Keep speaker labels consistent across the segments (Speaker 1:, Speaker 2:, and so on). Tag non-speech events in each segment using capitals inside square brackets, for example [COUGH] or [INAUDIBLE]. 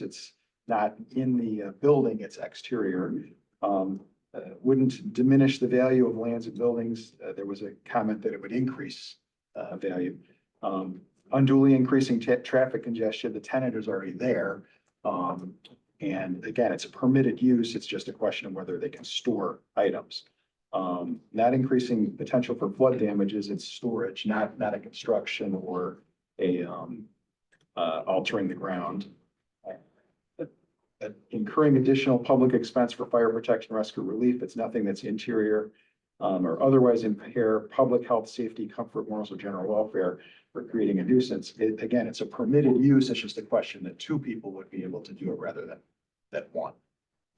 Speaker 1: it's not in the uh, building, it's exterior. Um, uh, wouldn't diminish the value of lands and buildings. Uh, there was a comment that it would increase uh, value. Um, unduly increasing ta- traffic congestion, the tenant is already there. Um, and again, it's a permitted use. It's just a question of whether they can store items. Um, not increasing potential for flood damages, it's storage, not, not a construction or a, um, uh, altering the ground. Uh, Incurring additional public expense for fire protection, rescue relief, it's nothing that's interior, um, or otherwise impair public health, safety, comfort, morals, or general welfare for creating a nuisance. It, again, it's a permitted use, it's just a question that two people would be able to do it rather than, than one.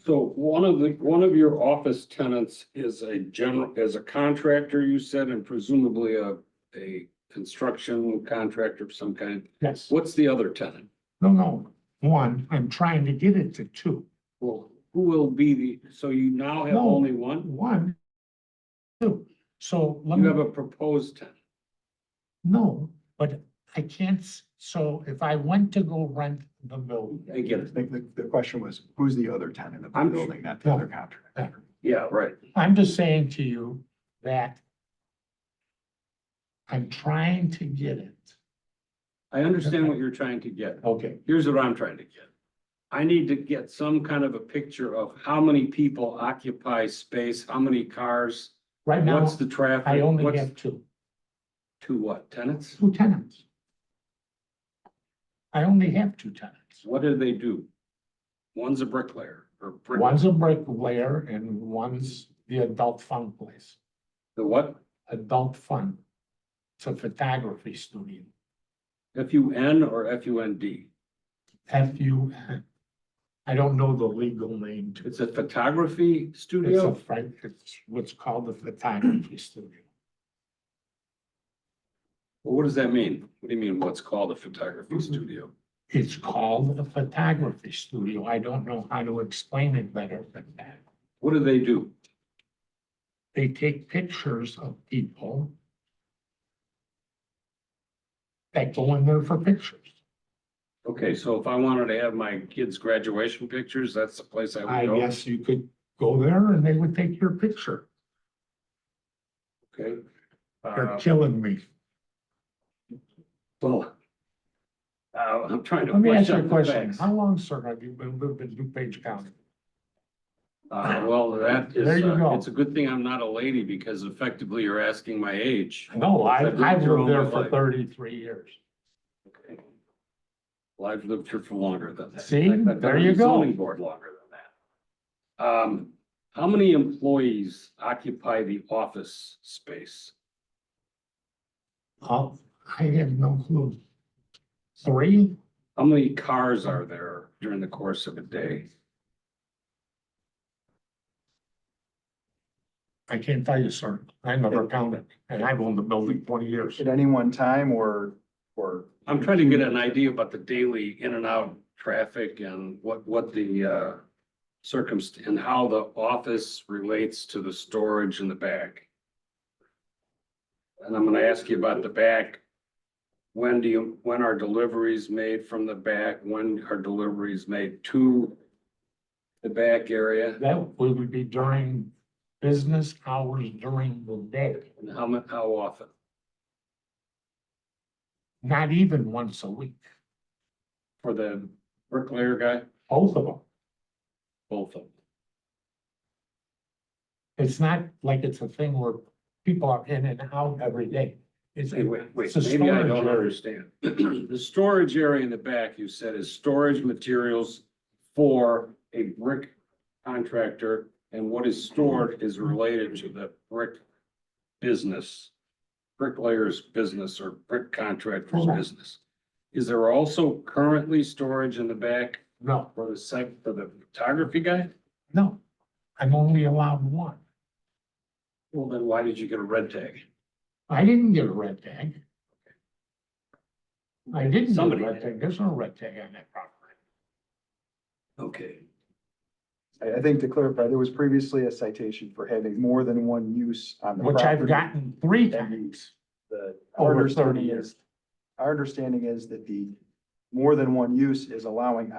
Speaker 2: So one of the, one of your office tenants is a general, is a contractor, you said, and presumably a, a construction contractor of some kind.
Speaker 3: Yes,
Speaker 2: What's the other tenant?
Speaker 3: no, no, one, I'm trying to get it to two,
Speaker 2: Well, who will be the, so you now have
Speaker 3: No.
Speaker 2: only one?
Speaker 3: one. Two, so let
Speaker 2: You have
Speaker 3: me,
Speaker 2: a proposed tenant.
Speaker 3: no, but I can't, s- so if I went to go rent the building.
Speaker 2: I get
Speaker 1: I
Speaker 2: it.
Speaker 1: think the, the question was, who's the other tenant of the
Speaker 2: I'm-
Speaker 1: building, not the other contractor?
Speaker 2: Yeah, right.
Speaker 3: I'm just saying to you that I'm trying to get it.
Speaker 2: I understand what you're trying to get.
Speaker 3: Okay.
Speaker 2: Here's what I'm trying to get. I need to get some kind of a picture of how many people occupy space, how many cars,
Speaker 3: Right now,
Speaker 2: what's the traffic?
Speaker 3: I only
Speaker 2: what's-
Speaker 3: have two,
Speaker 2: Two what, tenants?
Speaker 3: two tenants. I only have two tenants.
Speaker 2: What do they do? One's a bricklayer or brick,
Speaker 3: One's a bricklayer and one's the adult fun place.
Speaker 2: the what?
Speaker 3: adult fun. It's a photography studio,
Speaker 2: F U N or F U N D?
Speaker 3: F U. [LAUGHS] I don't know the legal name to it.
Speaker 2: It's a photography
Speaker 3: It's a
Speaker 2: studio?
Speaker 3: French, it's what's called a photography studio.
Speaker 2: Well, What does that mean? What do you mean, what's called a photography
Speaker 3: Mm-hmm.
Speaker 2: studio?
Speaker 3: It's called a photography studio. I don't know how to explain it better than that.
Speaker 2: What do they do?
Speaker 3: They take pictures of people that go in there for pictures.
Speaker 2: Okay, so if I wanted to have my kids' graduation pictures, that's the place I
Speaker 3: I
Speaker 2: would go?
Speaker 3: guess you could go there and they would take your picture.
Speaker 2: Okay.
Speaker 3: You're
Speaker 2: Uh,
Speaker 3: killing me.
Speaker 2: well, uh, I'm trying to.
Speaker 3: Let me
Speaker 2: flesh
Speaker 3: ask you
Speaker 2: out
Speaker 3: a
Speaker 2: the
Speaker 3: question.
Speaker 2: facts.
Speaker 3: How long, sir, have you been living in DuPage County?
Speaker 2: Uh, well, that is,
Speaker 3: There you
Speaker 2: uh,
Speaker 3: go.
Speaker 2: it's a good thing I'm not a lady because effectively you're asking my age.
Speaker 3: No, I,
Speaker 2: I've lived
Speaker 3: I've
Speaker 2: here all
Speaker 3: lived there
Speaker 2: my
Speaker 3: for
Speaker 2: life.
Speaker 3: thirty-three years.
Speaker 2: Well, I've lived here for longer than that.
Speaker 3: See?
Speaker 2: I've been
Speaker 3: There
Speaker 2: on
Speaker 3: you
Speaker 2: the
Speaker 3: go.
Speaker 2: Zoning board longer than that. Um, how many employees occupy the office space?
Speaker 3: Oh, I have no clue. Three?
Speaker 2: How many cars are there during the course of a day?
Speaker 3: I can't tell you, sir. I never counted, and I've owned the building twenty years.
Speaker 1: At any one time or, or
Speaker 2: I'm trying to get an idea about the daily in and out traffic and what, what the, uh, circumst, and how the office relates to the storage in the back. And I'm gonna ask you about the back. When do you, when are deliveries made from the back? When are deliveries made to the back area?
Speaker 3: That would be during business hours during the day,
Speaker 2: And how mu, how often?
Speaker 3: not even once a week,
Speaker 2: For the bricklayer guy?
Speaker 3: both of them.
Speaker 2: Both of them.
Speaker 3: It's not like it's a thing where people are in and out every day. It's,
Speaker 2: Hey, wait, wait,
Speaker 3: it's a
Speaker 2: maybe I
Speaker 3: storage
Speaker 2: don't
Speaker 3: area.
Speaker 2: understand. [CLEARS THROAT] The storage area in the back, you said, is storage materials for a brick contractor, and what is stored is related to the brick business, bricklayer's business or brick contractor's
Speaker 3: Correct.
Speaker 2: business. Is there also currently storage in the back
Speaker 3: no,
Speaker 2: for the site, for the photography guy?
Speaker 3: no. I'm only allowed one.
Speaker 2: Well, then why did you get a red tag?
Speaker 3: I didn't get a red tag. I didn't get
Speaker 2: Somebody
Speaker 3: a red
Speaker 2: did.
Speaker 3: tag, there's no red tag on that property.
Speaker 2: Okay.
Speaker 1: I, I think to clarify, there was previously a citation for having more than one use on the
Speaker 3: Which I've
Speaker 1: property.
Speaker 3: gotten three
Speaker 1: That
Speaker 3: times
Speaker 1: The, our
Speaker 3: over thirty
Speaker 1: understanding
Speaker 3: years.
Speaker 1: is, our understanding is that the more than one use is allowing